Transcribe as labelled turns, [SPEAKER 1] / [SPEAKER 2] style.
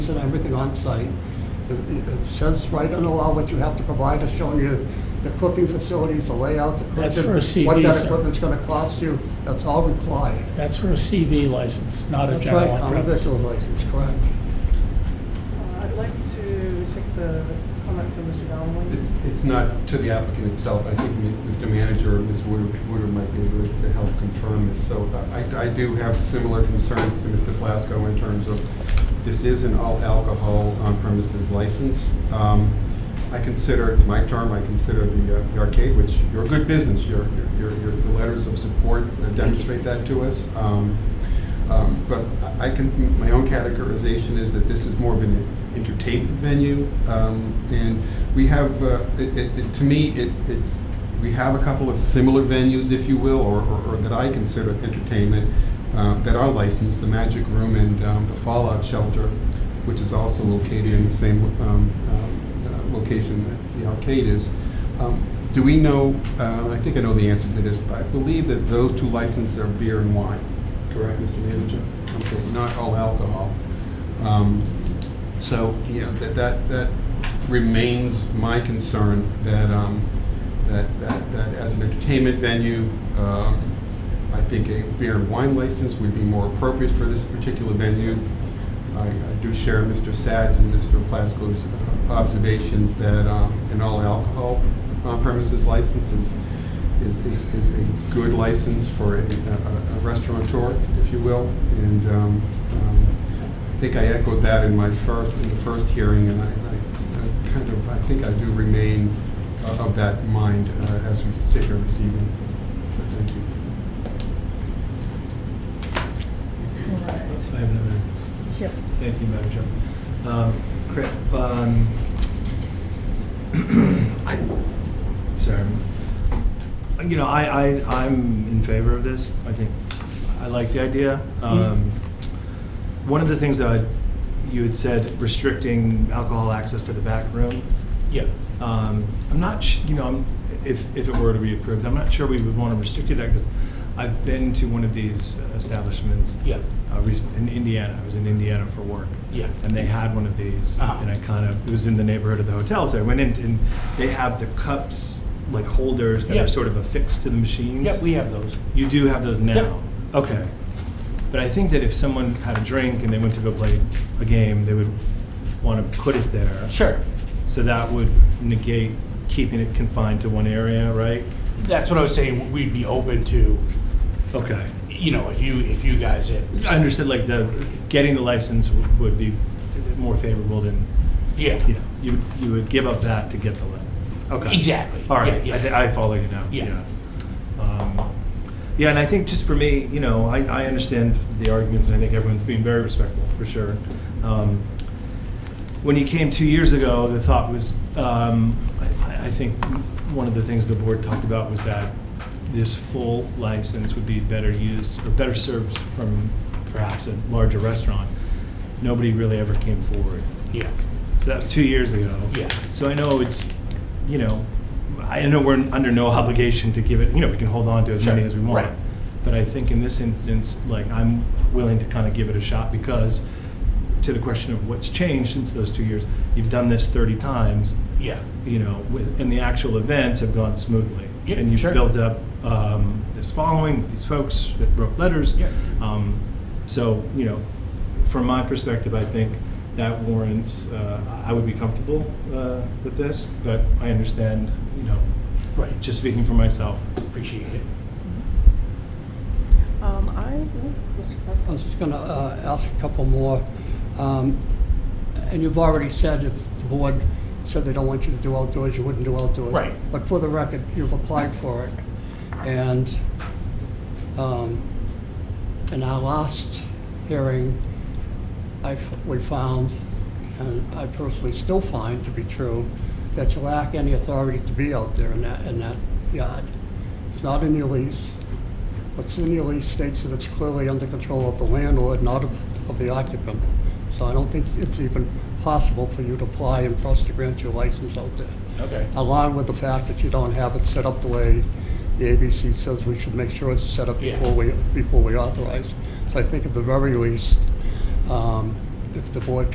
[SPEAKER 1] and everything on site. It it says right in the law what you have to provide, it's showing you the cooking facilities, the layout, the
[SPEAKER 2] That's
[SPEAKER 1] equipment,
[SPEAKER 2] for a CV,
[SPEAKER 1] What that
[SPEAKER 2] sir.
[SPEAKER 1] equipment's gonna cost you, that's all required.
[SPEAKER 2] That's for a CV license, not a
[SPEAKER 1] That's right,
[SPEAKER 2] general
[SPEAKER 1] on a
[SPEAKER 2] on-premise.
[SPEAKER 1] victual license, correct.
[SPEAKER 3] Uh, I'd like to take the comment from Mr.
[SPEAKER 4] It-
[SPEAKER 3] Donnelly.
[SPEAKER 4] It's not to the applicant itself. I think Ms- Mr. Manager or Ms. Wooder Wooder might be able to help confirm this. So uh, I I do have similar concerns to Mr. Plasko in terms of, this is an all alcohol on premises license. Um, I consider, it's my term, I consider the uh, the arcade, which you're a good business, Your your your the letters of support uh, demonstrate that to us. Um, um, But I I can, my own categorization is that this is more of an entertainment venue. Um, And we have, uh, it, it- it- to me, it, it, we have a couple of similar venues, if you will, or, or- or that I consider entertainment uh, that are licensed, the Magic Room and um, the Fallout Shelter, which is also located in the same um, um, uh, location that the arcade is. Um, Do we know, uh, I think I know the answer to this, but I believe that those two licenses are beer and wine. Correct, Mr. Manager? Okay, not all alcohol. Um, So, yeah, that, that, that remains my concern, that, um, that, that, that as an entertainment venue, um, I think a beer and wine license would be more appropriate for this particular venue. I, I do share Mr. Sad's and Mr. Plasko's uh, observations that, um, an all alcohol on premises license is, is, is, is a good license for a, a a restaurateur, if you will. And um, um, I think I echoed that in my first, in the first hearing, and I, I- I kind of, I think I do remain o- of that mind uh, as we sit here this evening. So Thank you.
[SPEAKER 5] So I have another,
[SPEAKER 3] Yes.
[SPEAKER 5] thank you, Madam Chair. Um, Chris, um, I, sorry, I'm- you know, I, I, I'm in favor of this. I think, I like the idea. Um, One of the things that I- you had said, restricting alcohol access to the back room.
[SPEAKER 2] Yeah.
[SPEAKER 5] Um, I'm not, sh- you know, I'm- if, if it were to be approved, I'm not sure we would want to restrict that because I've been to one of these establishments.
[SPEAKER 2] Yeah.
[SPEAKER 5] uh, recent- in Indiana. I was in Indiana for work.
[SPEAKER 2] Yeah.
[SPEAKER 5] And they had one of these,
[SPEAKER 2] Ah.
[SPEAKER 5] and I kind of it was in the neighborhood of the hotel, so I went in, and they have the cups like holders that
[SPEAKER 2] Yeah.
[SPEAKER 5] are sort of affixed to the machines.
[SPEAKER 2] Yeah, we have those.
[SPEAKER 5] you do have those now.
[SPEAKER 2] Yep.
[SPEAKER 5] Okay. But I think that if someone had a drink and they went to go play a game, they would want to put it there.
[SPEAKER 2] Sure.
[SPEAKER 5] So that would negate keeping it confined to one area, right?
[SPEAKER 2] That's what I was saying, we'd be open to,
[SPEAKER 5] Okay.
[SPEAKER 2] you know, if you, if you guys had.
[SPEAKER 5] I understood like the getting the license w- would be more favorable than
[SPEAKER 2] Yeah,
[SPEAKER 5] Yeah, you, you would give up that to get the letter. Okay.
[SPEAKER 2] exactly.
[SPEAKER 5] All right,
[SPEAKER 2] Yeah,
[SPEAKER 5] I, thi-
[SPEAKER 2] yeah.
[SPEAKER 5] I follow you now.
[SPEAKER 2] Yeah.
[SPEAKER 5] Um, Yeah, and I think just for me, you know, I, I understand the arguments, and I think everyone's being very respectful, for sure. Um, When you came two years ago, the thought was, um, I, I- I think one of the things the board talked about was that this full license would be better used, or better served from perhaps a larger restaurant. Nobody really ever came forward.
[SPEAKER 2] Yeah,
[SPEAKER 5] So that was two years ago.
[SPEAKER 2] Yeah.
[SPEAKER 5] So I know it's, you know, I know we're under no obligation to give it, you know, we can hold on to as many
[SPEAKER 2] Sure,
[SPEAKER 5] as we want.
[SPEAKER 2] right.
[SPEAKER 5] But I think in this instance, like, I'm willing to kind of give it a shot because to the question of what's changed since those two years, you've done this 30 times,
[SPEAKER 2] yeah,
[SPEAKER 5] you know, with- and the actual events have gone smoothly.
[SPEAKER 2] Yeah,
[SPEAKER 5] And you've
[SPEAKER 2] sure.
[SPEAKER 5] built up um, this following with these folks that wrote letters.
[SPEAKER 2] Yeah.
[SPEAKER 5] Um, So, you know, from my perspective, I think that warrants, uh, I would be comfortable uh, with this, but I understand, you know,
[SPEAKER 2] right, just
[SPEAKER 5] just speaking for myself.
[SPEAKER 2] appreciate it.
[SPEAKER 3] Um, I, oh, Mr.
[SPEAKER 1] I
[SPEAKER 3] Plasko.
[SPEAKER 1] was just going to ask a couple more. Um, And you've already said if the board said they don't want you to do outdoors, you wouldn't do outdoors.
[SPEAKER 2] Right.
[SPEAKER 1] But for the record, you've applied for it. And um, in our last hearing, I, f- we found, and I personally still find to be true, that you lack any authority to be out there in that, in that yard. It's not in your lease. What's in your lease states that it's clearly under control of the landlord, not of, of the occupant. So I don't think it's even possible for you to apply and for us to grant your license out there.
[SPEAKER 2] Okay.
[SPEAKER 1] Along with the fact that you don't have it set up the way the ABC says we should make sure it's set up
[SPEAKER 2] Yeah.
[SPEAKER 1] before we, before we authorize. So I think at the very least, um, if the board